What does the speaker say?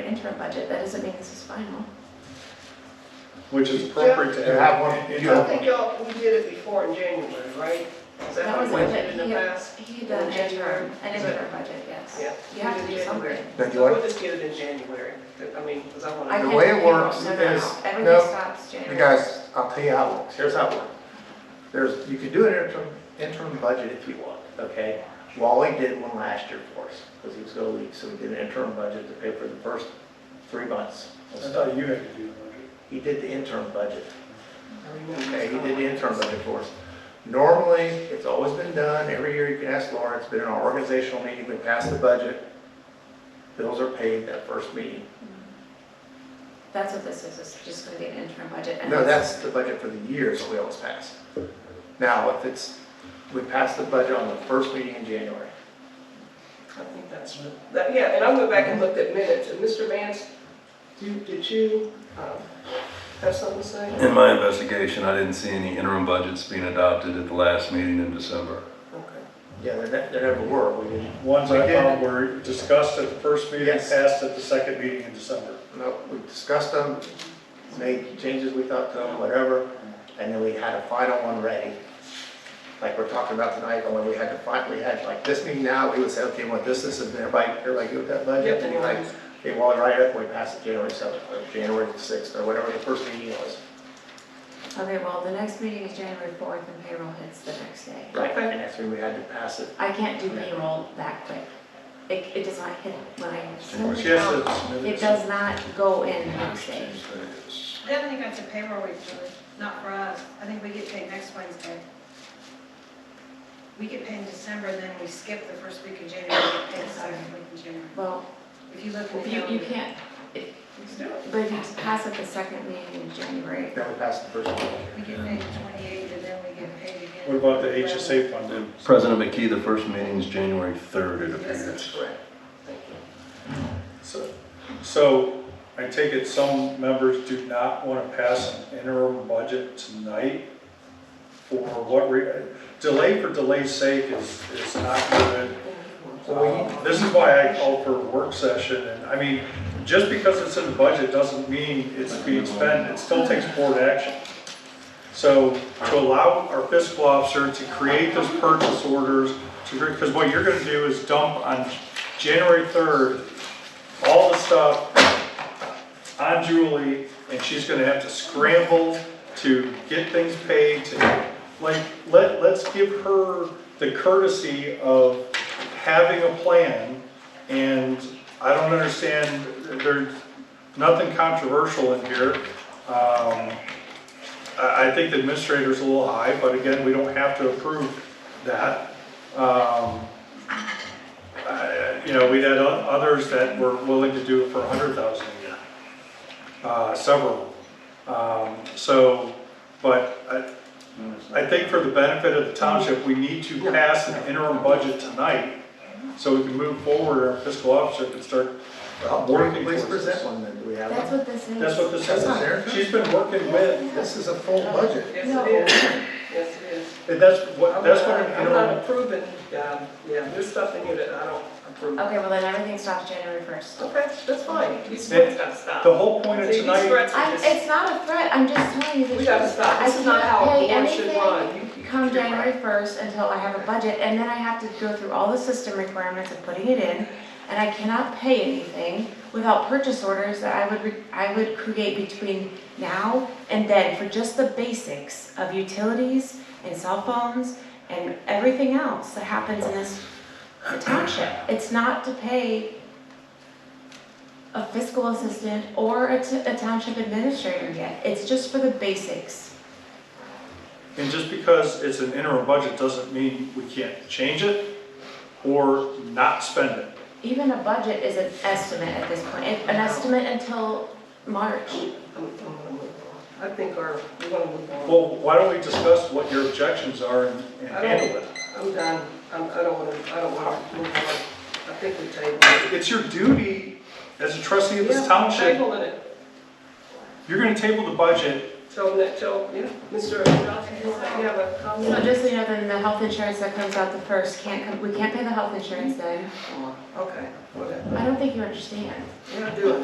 interim budget, that doesn't mean this is final. which is appropriate to You have have one. one- in you the- I think y'all, we did it before in January, right? Is That that how was we did it in the yeah. past? He did an In January. interim, an interim budget, yes. Yeah. You have to do something. Thank you, So Lori. we'll just get it in January, I mean, because I want I to. The can't way it do payroll. works No, no, no. is- Everything no, stops January. You guys, I'll tell you how it works, here's how it works. There's, you can do an interim, interim budget if you want, okay? Wally did one last year for us, because he was gonna leave, so we did an interim budget to pay for the first three months. I thought you had to do the budget. He did the interim budget. Okay, he did the interim budget for us. Normally, it's always been done, every year you can ask Lauren, it's been in our organizational meeting, we pass the budget. Bills are paid that first meeting. That's what this is, it's just gonna be an interim budget. and No, it's- that's the budget for the years that we always pass. Now, if it's, we pass the budget on the first meeting in January. I think that's, that, yeah, and I went back and looked at minutes, and Mr. Vance, do, you- did you, um, have something to say? In my investigation, I didn't see any interim budgets being adopted at the last meeting in December. Okay. Yeah, there, ne- there never were, we didn't, Ones I We did. found were discussed at the first meeting, Yes. passed at the second meeting in December. no, we discussed them, made changes we thought to them, whatever, and then we had a final one ready. Like we're talking about tonight, only we had to finally, had like this meeting now, we would say, okay, well, this, this, and everybody, everybody good with that budget? And you're like, okay, well, right up, we passed it January seventh, or January sixth, or whatever the first meeting was. Okay, well, the next meeting is January fourth and payroll hits the next day. Right, and that's when we had to pass it I can't do payroll that quick. It, it does not hit when I send She it has out. to submit It it. does not go in the next day. I don't think that's a payroll week, Julie, not for us. I think we get paid next Wednesday. We get paid in December, and then we skip the first week of January, we get paid the second week in January. Well, If you look in the you, you calendar. can't, it- but if you pass it the second meeting in January, Then we passed the first one. We get paid twenty-eight, and then we get paid again. What about the HSA funding? And President McKee, the first meeting is January 3rd, it appears. Correct. Thank you. So, so I take it some members do not want to pass an interim budget tonight for what, re- delay for delay's sake is, is not good. Um, This is why I called for a work session, and I mean, just because it's in the budget doesn't mean it's being spent, it still takes board action. So to allow our fiscal officer to create those purchase orders, to, because what you're gonna do is dump on January third, all the stuff on Julie, and she's gonna have to scramble to get things paid, to, like, let, let's give her the courtesy of having a plan, and I don't understand, there's nothing controversial in here. Um, I, I think the administrator's a little high, but again, we don't have to approve that. Um, I- Uh, you know, we had o- others that were willing to do it for a hundred thousand a year. Uh, several. Um, so, but I, I think for the benefit of the township, we need to pass an interim budget tonight so we can move forward, our fiscal officer can start Well, working Please towards present this. one then, do we have that's one? what this is. That's what this That's not there. is. She's been working with, This is a full budget. Yes, No. it is, yes, it is. and that's what, that's what an I'm not interim, approving, um, yeah, there's stuff in here that I don't approve. Okay, well then everything stops January first. Okay, that's fine, these threats gotta stop. the whole point of See, These tonight, threats I, are just, it's not a threat, I'm just telling you that. we gotta stop, I this is not how cannot a pay board should anything run. You- you- Come you're right. January first until I have a budget, and then I have to go through all the system requirements of putting it in, and I cannot pay anything without purchase orders that I would, re- I would create between now and then for just the basics of utilities and cell phones and everything else that happens in this township. It's not to pay a fiscal assistant or a t- a township administrator yet, it's just for the basics. and just because it's an interim budget doesn't mean we can't change it or not spend it. Even a budget is an estimate at this point, It- an estimate until March. I'm- I'm gonna move on. I think our, we're gonna move on. Well, why don't we discuss what your objections are and and I don't- handle it? I'm done, I'm, I don't wanna, I don't wanna move on. I think we tabled it. It's your duty as a trustee of this Yeah, township, Tabling it, you're gonna table the budget. tell that, tell, yeah, Mr. Johnson, you have a So comment? just so you know, then the health insurance that comes out the first can't come, we can't pay the health insurance then. Okay, whatever, I don't think you understand. yeah, do it.